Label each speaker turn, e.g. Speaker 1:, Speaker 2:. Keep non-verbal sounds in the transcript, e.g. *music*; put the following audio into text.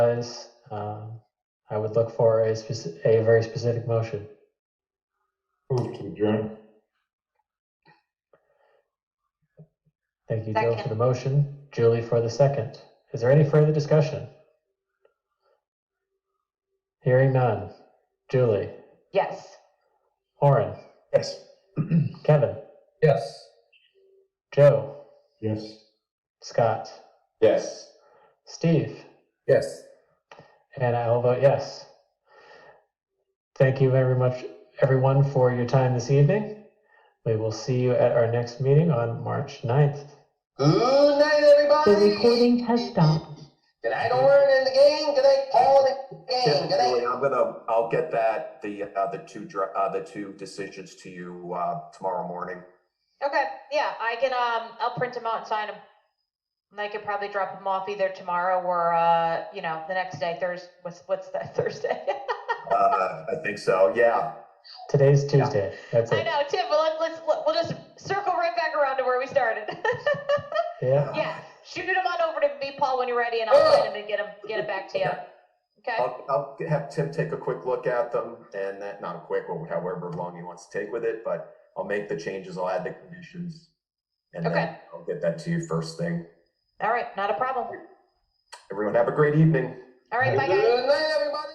Speaker 1: Otherwise, um, I would look for a speci a very specific motion.
Speaker 2: Move to adjourn.
Speaker 1: Thank you, Joe, for the motion, Julie for the second. Is there any further discussion? Hearing none. Julie,
Speaker 3: Yes.
Speaker 1: Orin,
Speaker 2: Yes.
Speaker 1: Kevin,
Speaker 4: Yes.
Speaker 1: Joe,
Speaker 2: Yes.
Speaker 1: Scott,
Speaker 2: Yes.
Speaker 1: Steve,
Speaker 4: Yes.
Speaker 1: and I'll vote yes. Thank you very much, everyone, for your time this evening. We will see you at our next meeting on March 9th.
Speaker 5: Good night,
Speaker 3: The
Speaker 5: everybody.
Speaker 3: recording has stopped.
Speaker 5: Good night, Orin and the gang. Good night, Paul and the gang. Good night.
Speaker 6: Julie, I'm gonna, I'll get that, the, uh, the two, dr- uh, the two decisions to you, uh, tomorrow morning.
Speaker 7: Okay, yeah, I can, um, I'll print them out and sign them. And I could probably drop them off either tomorrow or, uh, you know, the next day, Thursday, what's, what's that, *laughs* Thursday?
Speaker 6: Uh, I think so, yeah.
Speaker 1: Today's Tuesday. That's
Speaker 7: I
Speaker 1: it.
Speaker 7: know, Tim, well, let's, let's- we'll just circle right back around to where we started. *laughs*
Speaker 1: Yeah.
Speaker 7: Yeah, shoot them on over to me, Paul, when you're ready, and I'll sign them and get them, get
Speaker 1: *laughs*
Speaker 7: it back to you. Okay,
Speaker 6: I'll, I'll have Tim take a quick look at them and that, not quick, or however long he wants to take with it, but I'll make the changes, I'll add the conditions. And then
Speaker 7: Okay.
Speaker 6: I'll get that to you first thing.
Speaker 7: all right, not a problem.
Speaker 6: Everyone have a great evening.
Speaker 7: All right, bye, guys.
Speaker 5: Good night, everybody.